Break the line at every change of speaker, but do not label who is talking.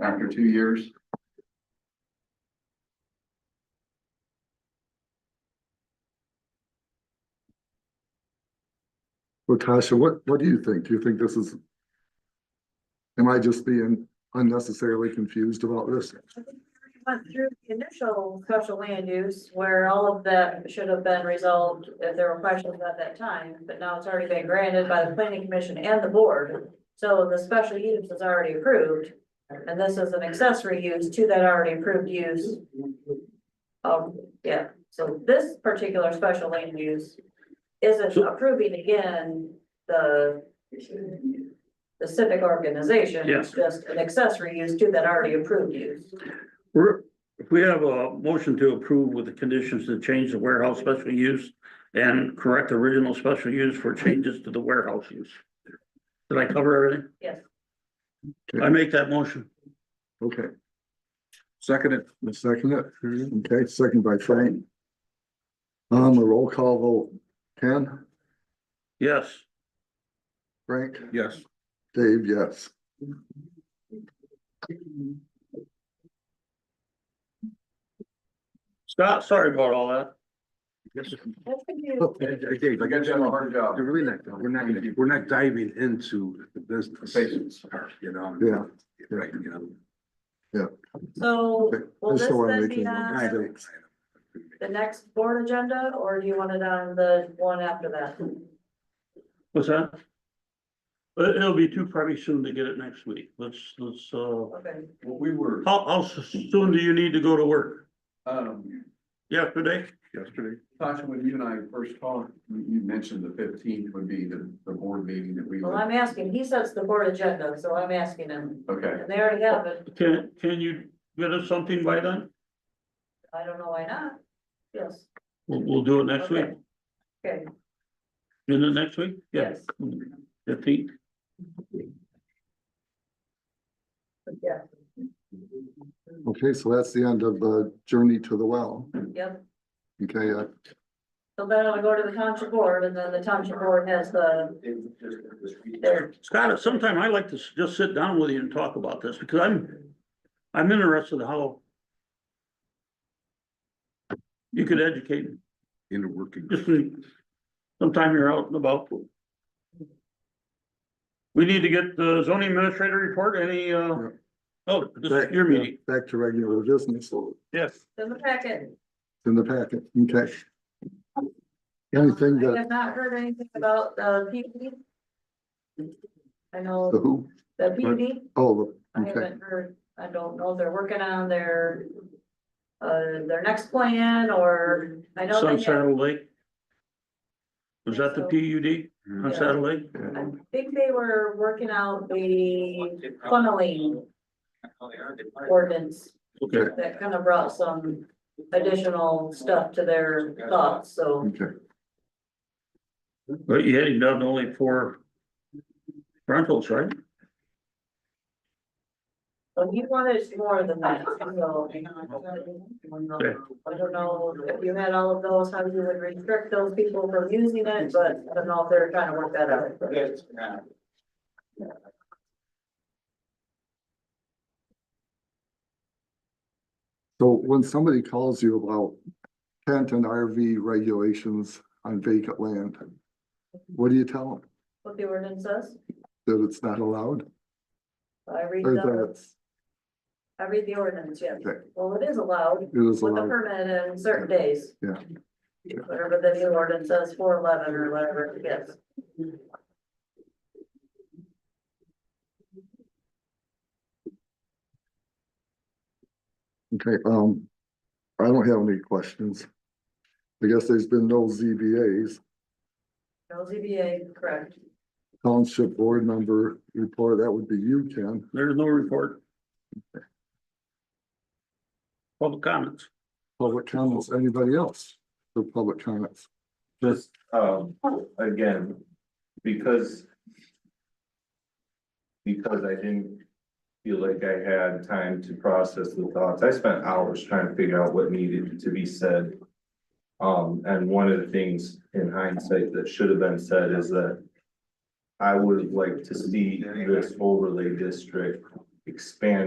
after two years.
Well, Tasha, what, what do you think? Do you think this is? Am I just being unnecessarily confused about this?
I think we Went through the initial special land use where all of that should have been resolved if there were questions at that time, but now it's already been granted by the planning commission and the board. So the special use is already approved, and this is an accessory use to that already approved use. Um, yeah, so this particular special land use isn't approving again the the civic organization.
Yes.
Just an accessory use to that already approved use.
We're, if we have a motion to approve with the conditions to change the warehouse special use and correct the original special use for changes to the warehouse use. Did I cover everything?
Yes.
I make that motion.
Okay,
Second it,
the second it, okay, second by Frank. Um, a roll call vote, Ken,
Yes,
Frank,
yes.
Dave, yes.
Scott, sorry about all that.
That's what you-
Dave, I got you on-
Hard job.
We're really not, we're not, gonna- we're not diving into the business,
Patience.
you know?
Yeah.
Right, you know.
So will
Just
this
so I'm
then be uh,
making- I
on
don't-
the next board agenda or do you want it on the one after that?
What's that? It, will be too probably soon to get it next week. Let's, let's, uh,
Okay.
Well, we were,
how, how soon do you need to go to work?
um,
Yesterday?
yesterday, Tasha, when you and I first talked, you, you mentioned the fifteenth would be the, the board meeting that we
Well,
would.
I'm asking, he sets the board agenda, so I'm asking him.
Okay,
And they already have it.
Can, can you get us something by then?
I don't know why not. Yes,
We'll, we'll do it next week.
okay,
In the next week? Yeah.
yes,
Fifteenth?
yeah,
Okay, so that's the end of the journey to the well,
yep.
okay, uh,
So then I'll go to the township board and then the township board has the, their
Scott, at some time I'd like to s- just sit down with you and talk about this, because I'm, I'm interested how you could educate, me.
Into working.
just when- sometime you're out and about. We need to get the zoning administrator report, any, uh,
Yeah.
oh, this is your meeting.
back to regular business, so
Yes.
in the packet.
it's in the packet, okay. Anything
I
that,
have not heard anything about the PUD. I
the
know
who,
the PUD,
oh,
I
okay,
haven't heard, I don't know if they're working on their uh, their next plan or, I know they have,
Sunsaddle Lake. Was that the PUD on Saddle Lake?
I think they were working out the funneling ordinance
Okay,
that kind of brought some additional stuff to their thoughts, so
okay.
but you had him down to only for rentals, right?
but he wanted more than that, so. I don't know if you had all of those, how you would restrict those people from using it, but I don't know if they're trying to work that out.
So when somebody calls you about tent and RV regulations on vacant land, what do you tell them?
What the ordinance says,
That it's not allowed?
I read
Or
the,
that
I read the ordinance, yeah.
Okay.
Well, it is allowed
it is
with a
allowed?
permit in certain days.
Yeah.
Whatever the new ordinance says, four eleven or whatever it is.
Okay, um, I don't have any questions. I guess there's been no ZBAs.
No ZBA, correct.
Township board member report, that would be you, Ken.
There's no report. Public comments.
Public comments, anybody else for public comments?
just, um, again, because. Because I didn't feel like I had time to process the thoughts, I spent hours trying to figure out what needed to be said. Um, and one of the things in hindsight that should have been said is that. I would have liked to see this overlay district expand